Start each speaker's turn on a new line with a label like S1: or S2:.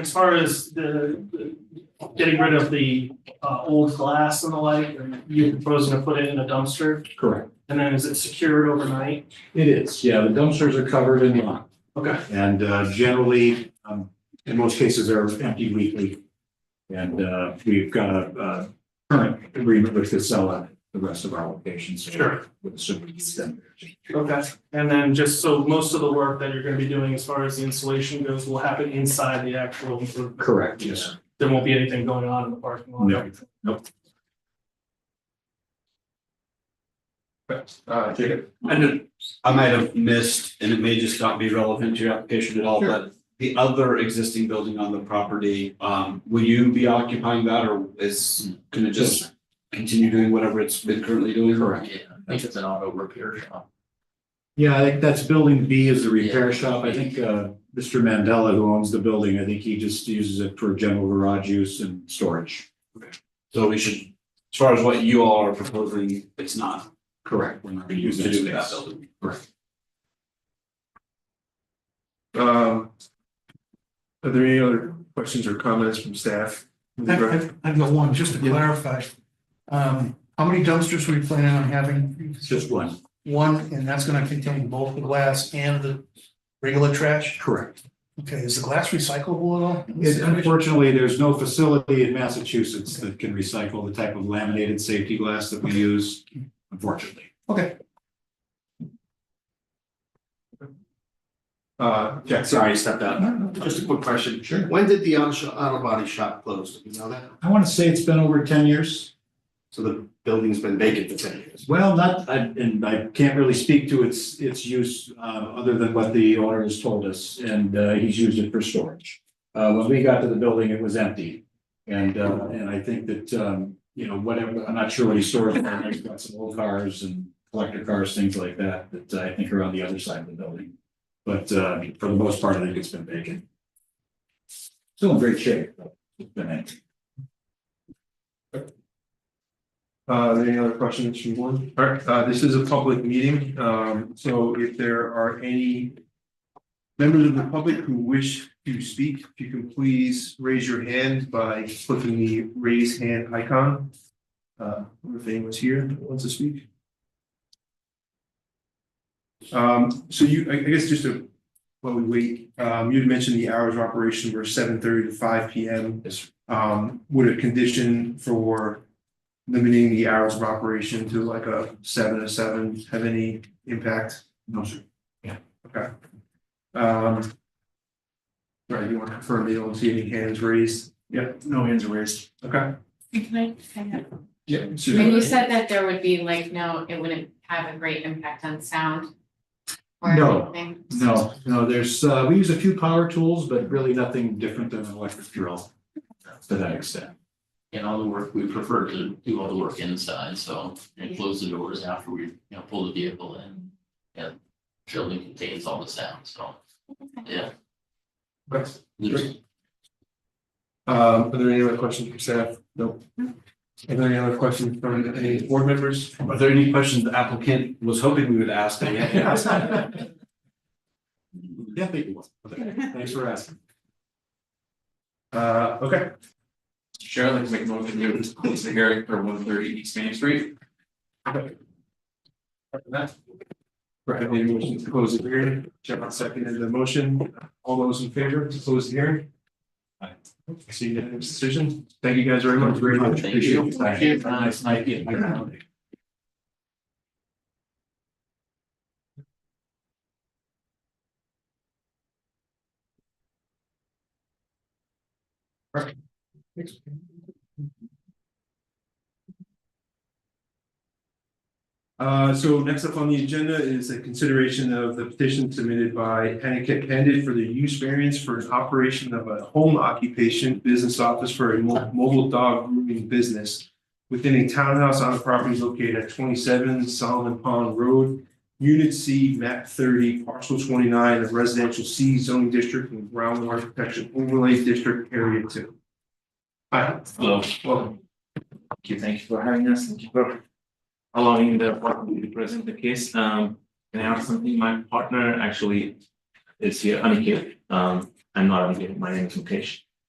S1: As far as the, the- getting rid of the, uh, old glass and the like, and you proposing to put it in a dumpster?
S2: Correct.
S1: And then is it secured overnight?
S2: It is, yeah, the dumpsters are covered in lime.
S1: Okay.
S2: And uh, generally, um, in most cases, they're empty weekly. And uh, we've got a uh, current agreement with Casella, at the rest of our locations. so
S1: Sure.
S2: With a super extender.
S1: Okay, and then just so most of the work that you're gonna be doing as far as the installation goes will happen inside the actual,
S2: Correct, yes. Oh,
S1: there won't be anything going on in the parking lot?
S2: No,
S3: Uh, Jacob,
S4: I did, I might have missed, and it may just not be relevant to your application at all, but the other existing building on the property, um, will you be occupying that or is, can it just continue doing whatever it's been currently doing?
S2: correct.
S5: Yeah, I think it's an auto repair shop.
S2: Yeah, I think that's building B is the repair shop. I think uh, Mr. Mandela, who owns the building, I think he just uses it for general garage use and storage.
S4: So we should, as far as what you all are proposing, it's not
S2: Correct. We're not
S4: for you
S2: using
S4: to do with that
S2: space.
S4: building.
S3: um. Are there any other questions or comments from staff?
S6: I've, I've got one, just to
S3: Yeah.
S6: clarify. Um, how many dumpsters were you planning on having?
S2: It's Just one,
S6: One, and that's gonna contain both the glass and the regular trash?
S2: correct.
S6: Okay, is the glass recyclable at all?
S2: It- Unfortunately, there's no facility in Massachusetts that can recycle the type of laminated safety glass that we use, unfortunately.
S3: Uh, Jack,
S4: Sorry, I stepped out. Just a quick question.
S2: Sure.
S4: When did the auto sho- auto body shop close? Do you know that?
S2: I want to say it's been over ten years.
S4: So the building's been vacant for ten years.
S2: Well, not, I- and I can't really speak to its, its use, uh, other than what the owner has told us, and, uh, he's used it for storage. Uh, when we got to the building, it was empty. And, uh, and I think that, um, you know, whatever, I'm not sure what he stores, but he's got some old cars and collector cars, things like that, that I think are on the other side of the building. But, uh, for the most part, I think it's been vacant. Still in great shape, but it's been empty.
S3: uh, are there any other questions from one? All right, uh, this is a public meeting, um, so if there are any. Members of the public who wish to speak, if you can please raise your hand by clicking the raise hand icon. Uh, if anyone's here that wants to speak. Um, so you, I I guess just to, while we wait, um, you'd mentioned the hours of operation were seven thirty to five P M.
S2: Yes, sir.
S3: Um, would a condition for limiting the hours of operation to like a seven to seven have any impact?
S2: No, sir.
S3: Okay. Um. Right, you want to confirm the don't see any hands raised? Yep.
S2: No hands are raised.
S3: Okay.
S7: Can I, hang on?
S3: Yeah.
S7: when you said that there would be like, no, it wouldn't have a great impact on sound or
S2: No.
S7: anything.
S2: No, no, there's, uh, we use a few power tools, but really nothing different than an electric drill to that extent.
S5: And all the work, we prefer to do all the work inside, so and close the doors after we, you know, pull the vehicle in. And building contains all the sound, so, yeah.
S3: Right.
S5: There's-
S3: Um, are there any other questions from staff? Nope. Are there any other questions from any board members?
S4: Are there any questions the applicant was hoping we would ask? that we haven't asked?
S2: Yeah, thank you. Thanks for asking.
S3: Uh, okay.
S8: Chair, I'd like to make a motion to close the hearing for one thirty East Main Street.
S3: Right, I made a motion to close the hearing, Jeff seconded the motion, all those in favor to close the hearing?
S2: Aye.
S3: See you next decision, thank you guys very much, very much,
S5: Thank
S3: appreciate
S5: you.
S3: it.
S2: Thank you. Nice night. Yeah, nice night.
S3: Uh, so next up on the agenda is a consideration of the petition submitted by Aniket Pandit for the use variance for an operation of a home occupation business office for a mo- mobile dog grooming business within a townhouse on a property located at twenty-seven Solomon Pond Road, Unit C, map thirty, parcel twenty-nine of residential C zoning district and groundwater protection overlay district area two. Hi.
S8: Hello.
S3: Welcome.
S8: Thank you, thank you for having us, thank you for allowing the opportunity to present the case. Um, and I have something, my partner actually is here, Aniket. Um, I'm not Aniket, my name is Mukesh.